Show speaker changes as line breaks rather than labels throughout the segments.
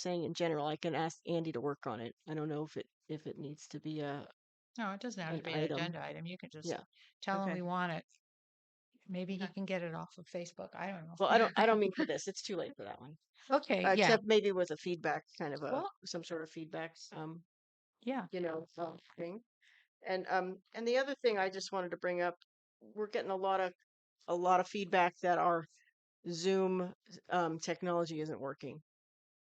saying in general, I can ask Andy to work on it. I don't know if it if it needs to be a
No, it doesn't have to
an
be an
item.
agenda item. You can just
Yeah.
tell him
Okay.
we want it. Maybe he
Okay.
can get it off of Facebook. I don't know.
Well, I don't I don't mean for this. It's too late for that one.
Okay,
Uh,
yeah,
Except maybe with a feedback kind of a
Well-
some sort of feedback um
yeah.
you know um, thing. And um and the other thing I just wanted to bring up, we're getting a lot of a lot of feedback that our Zoom um, technology isn't working.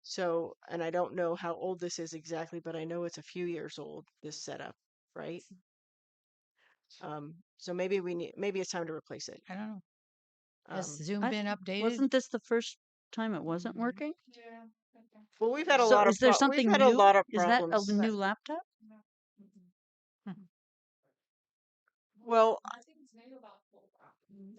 So, and I don't know how old this is exactly, but I know it's a few years old. This setup, right? Um, so maybe we need maybe it's time to replace it.
I don't know.
Um,
Has Zoom
I-
been updated?
Wasn't this the first time it wasn't
Mhm.
working?
well, we've had a
So
lot
is
of
there
pro-
something
we've had
new?
a lot of
Is that
problems.
a new laptop?
well,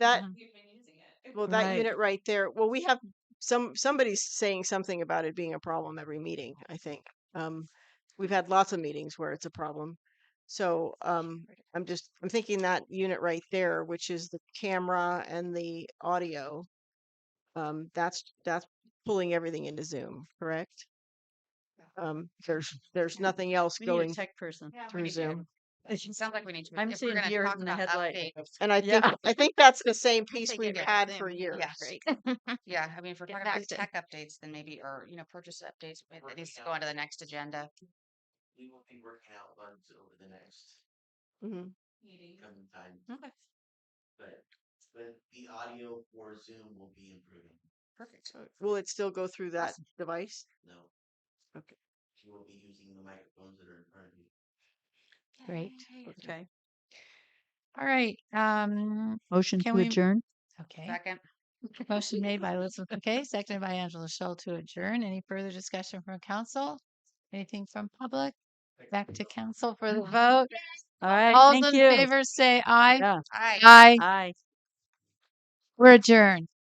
that
Mm-hmm.
well that
Right.
unit right there. Well, we have some somebody's saying something about it being a problem every meeting. I think um, we've had lots of meetings where it's a problem. So um, I'm just I'm thinking that unit right there, which is the camera and the audio. Um, that's that's pulling everything into Zoom, correct? Um, there's there's nothing else
We need
going
a tech person.
through Zoom,
It sounds like we need to.
I'm
if we're
seeing
gonna
deer
talk
in the
about
headlight.
update,
and I
Yeah.
think I think that's the same
we
piece
take
we've
it
had
then.
for
Yeah,
years.
great. Yeah, I mean, if we're
Get
talking about
back to-
tech updates, then maybe, or, you know, purchase updates, it- it needs to go onto the next agenda.
we will be working out bugs over the next
Mhm.
coming time,
Okay,
Mm-hmm.
but but the audio for Zoom will be improving.
perfect.
Will it still go through that device?
No,
Okay.
you will be using the microphones that are in front of you.
Great.
Yay.
Okay.
All right, um,
Motion
Can
to
we-
adjourn?
okay.
Second.
Motion made by Elizabeth McKay, seconded by Angela Shell to adjourn. Any further discussion from council? Anything from public? Back to council for the vote.
Mm-hmm. All right,
All
thank
those in
you.
favor say aye.
Yeah.
Aye.
Aye.
Aye.
We're adjourned.